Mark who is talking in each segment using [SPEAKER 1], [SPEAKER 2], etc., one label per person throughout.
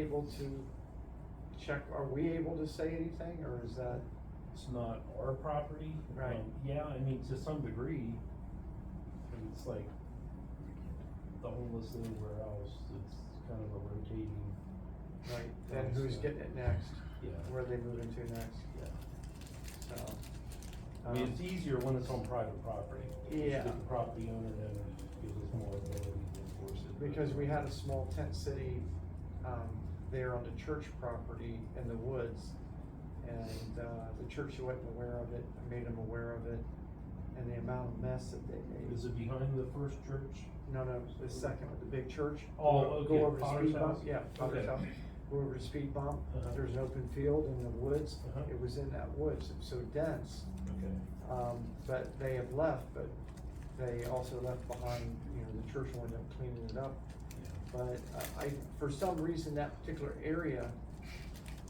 [SPEAKER 1] able to check, are we able to say anything, or is that,
[SPEAKER 2] It's not our property.
[SPEAKER 1] Right.
[SPEAKER 2] Um, Yeah, I mean, to some degree, but it's like the homeless thing where else, it's kind of a rotating,
[SPEAKER 1] right, then who's getting it next,
[SPEAKER 2] yeah,
[SPEAKER 1] where are they moving to next,
[SPEAKER 2] yeah.
[SPEAKER 1] so.
[SPEAKER 2] I mean, it's
[SPEAKER 1] um,
[SPEAKER 2] easier when it's on private property. It's
[SPEAKER 1] Yeah.
[SPEAKER 2] The property owner then gives us more ability to enforce it.
[SPEAKER 1] Because we had a small tent city, um, there on the church property in the woods. And, uh, the church wasn't aware of it, I made them aware of it, and the amount of mess that they made.
[SPEAKER 2] Is it behind the first church?
[SPEAKER 1] No, no, the second, with the big church.
[SPEAKER 2] Oh,
[SPEAKER 1] Go-
[SPEAKER 2] okay,
[SPEAKER 1] Go over the
[SPEAKER 2] Potter's
[SPEAKER 1] speed bump,
[SPEAKER 2] house?
[SPEAKER 1] yeah, Potter's
[SPEAKER 2] Okay.
[SPEAKER 1] house, go over the speed bump,
[SPEAKER 2] Uh-huh.
[SPEAKER 1] there's an open field in the woods,
[SPEAKER 2] Uh-huh.
[SPEAKER 1] it was in that woods, it was so dense.
[SPEAKER 2] Okay.
[SPEAKER 1] Um, but they have left, but they also left behind, you know, the church ended up cleaning it up. But uh, I, for some reason, that particular area,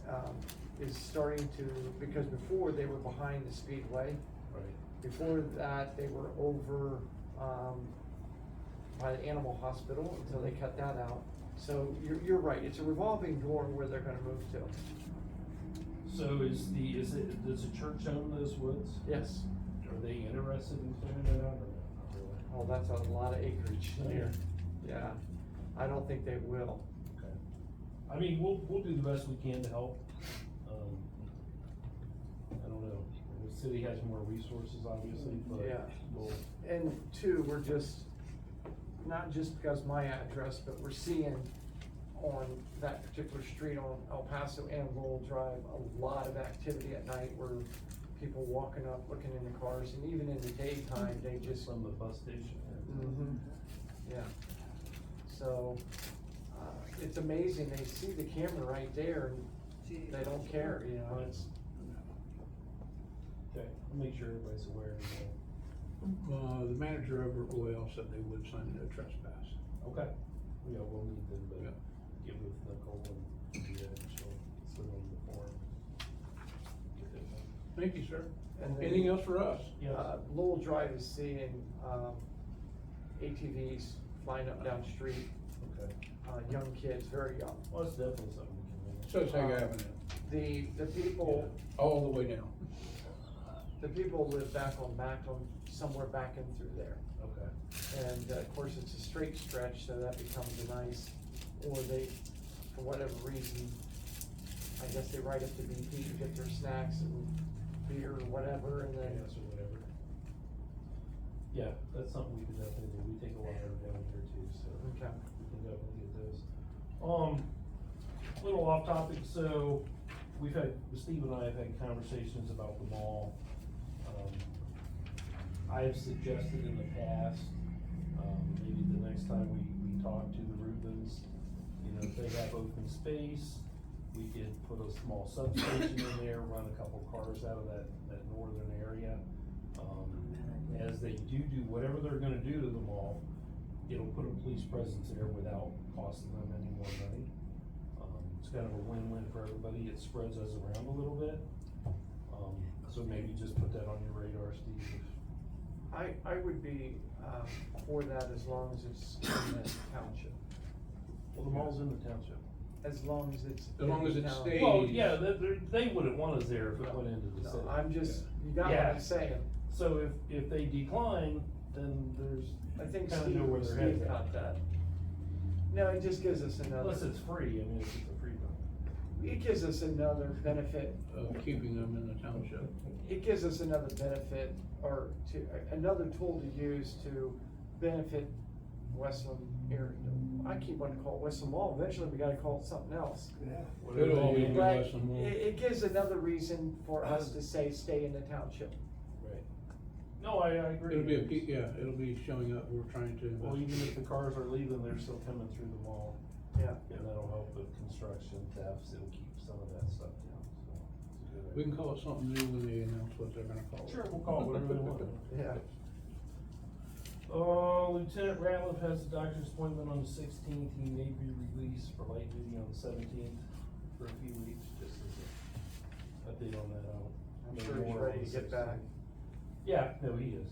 [SPEAKER 1] um, is starting to, because before they were behind the speedway.
[SPEAKER 2] Right.
[SPEAKER 1] Before that, they were over, um, by the animal hospital until they cut that out. So you're, you're right, it's a revolving door where they're gonna move to.
[SPEAKER 2] So is the, is it, does the church own those woods?
[SPEAKER 1] Yes,
[SPEAKER 2] Are they interested in clearing it out or not? Not really?
[SPEAKER 1] oh, that's a lot of acreage
[SPEAKER 2] Yeah.
[SPEAKER 1] there. Yeah, I don't think they will.
[SPEAKER 2] Okay. I mean, we'll, we'll do the best we can to help. Um, I don't know, the city has more resources obviously, but
[SPEAKER 1] Yeah.
[SPEAKER 2] we'll,
[SPEAKER 1] And two, we're just, not just because my address, but we're seeing on that particular street on El Paso and Lowell Drive, a lot of activity at night where people walking up, looking in the cars, and even in the daytime, they just,
[SPEAKER 2] from the bus station.
[SPEAKER 1] Mhm. yeah. So, uh, it's amazing, they see the camera right there, and they don't care, you know, it's,
[SPEAKER 2] Okay, I'll make sure everybody's aware of that.
[SPEAKER 3] Uh, the manager over at Royale said they would sign a no trespass.
[SPEAKER 2] Okay, yeah, we'll need them,
[SPEAKER 3] Yeah.
[SPEAKER 2] but get with Nicole and do that, and she'll send them the form. Get that done.
[SPEAKER 3] Thank you, sir.
[SPEAKER 1] and they-
[SPEAKER 3] Anything else for us?
[SPEAKER 2] Yes.
[SPEAKER 1] Uh, Lowell Drive is seeing, um, ATVs flying up down the street,
[SPEAKER 2] Okay,
[SPEAKER 1] uh, young kids, very young.
[SPEAKER 2] well, it's definitely something we can manage.
[SPEAKER 3] Sussex Avenue,
[SPEAKER 1] The, the people,
[SPEAKER 3] all the way down.
[SPEAKER 1] the people live back on Macklem, somewhere back in through there.
[SPEAKER 2] Okay,
[SPEAKER 1] And uh, of course, it's a straight stretch, so that becomes a nice, or they, for whatever reason, I guess they ride up to BP to get their snacks and beer or whatever, and then,
[SPEAKER 2] yes, or whatever. Yeah, that's something we can definitely do, we take a lot of them down here too, so.
[SPEAKER 1] okay.
[SPEAKER 2] we can definitely get those. Um, little off topic, so we've had, Steve and I have had conversations about the mall. Um, I have suggested in the past, um, maybe the next time we, we talk to the Rubens, you know, if they have open space, we could put a small substation in there, run a couple cars out of that, that northern area. Um, as they do do whatever they're gonna do to the mall, it'll put a police presence there without costing them any more money. Um, it's kind of a win-win for everybody, it spreads us around a little bit. Um, so maybe just put that on your radar, Steve,
[SPEAKER 1] I, I would be, um, for that as long as it's in the township,
[SPEAKER 2] well, the mall's in the township.
[SPEAKER 1] as long as it's.
[SPEAKER 3] As long
[SPEAKER 1] in
[SPEAKER 3] as
[SPEAKER 1] the
[SPEAKER 3] it
[SPEAKER 1] town.
[SPEAKER 3] stays-
[SPEAKER 2] Well, yeah, they, they're- they wouldn't want us there if it went into the
[SPEAKER 1] No,
[SPEAKER 2] city.
[SPEAKER 1] I'm just, you got what
[SPEAKER 2] Yeah.
[SPEAKER 1] I'm saying.
[SPEAKER 2] So if, if they decline, then there's.
[SPEAKER 1] I think
[SPEAKER 2] kinda
[SPEAKER 1] Steve,
[SPEAKER 2] know where their heads
[SPEAKER 1] Steve
[SPEAKER 2] at.
[SPEAKER 1] caught that. No, it just gives us another.
[SPEAKER 2] Unless it's free, I mean, if it's a free one.
[SPEAKER 1] It gives us another benefit,
[SPEAKER 3] Of uh, keeping them in the township.
[SPEAKER 1] it gives us another benefit or to, another tool to use to benefit Westland area. I keep wanting to call it Westland Mall, eventually we gotta call it something else.
[SPEAKER 2] Whatever
[SPEAKER 3] It'll always
[SPEAKER 2] they-
[SPEAKER 3] be-
[SPEAKER 1] But it,
[SPEAKER 3] Westland Mall.
[SPEAKER 1] it gives another reason for us to say, stay in the township.
[SPEAKER 2] Right. No, I, I agree.
[SPEAKER 3] It'll be a, pe- yeah, it'll be showing up, we're trying to.
[SPEAKER 2] Well, even if the cars are leaving, they're still coming through the mall.
[SPEAKER 1] Yeah.
[SPEAKER 2] And that'll help with construction thefts, it'll keep some of that stuff down, so. it's a good
[SPEAKER 3] We
[SPEAKER 2] idea.
[SPEAKER 3] can call it something new when they announce what they're gonna call it.
[SPEAKER 2] Sure, we'll call it whatever we want.
[SPEAKER 1] Yeah.
[SPEAKER 2] Uh, Lieutenant Ratliff has a doctor's appointment on the sixteenth, he may be released for light duty on the seventeenth for a few weeks, just as a update on that. I'll
[SPEAKER 1] I'm
[SPEAKER 2] know
[SPEAKER 1] sure he's
[SPEAKER 2] more on
[SPEAKER 1] ready to
[SPEAKER 2] the
[SPEAKER 1] get back.
[SPEAKER 2] 16th. Yeah, no, he is.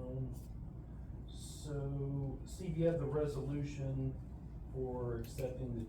[SPEAKER 2] Um, so, Steve, you have the resolution for accepting the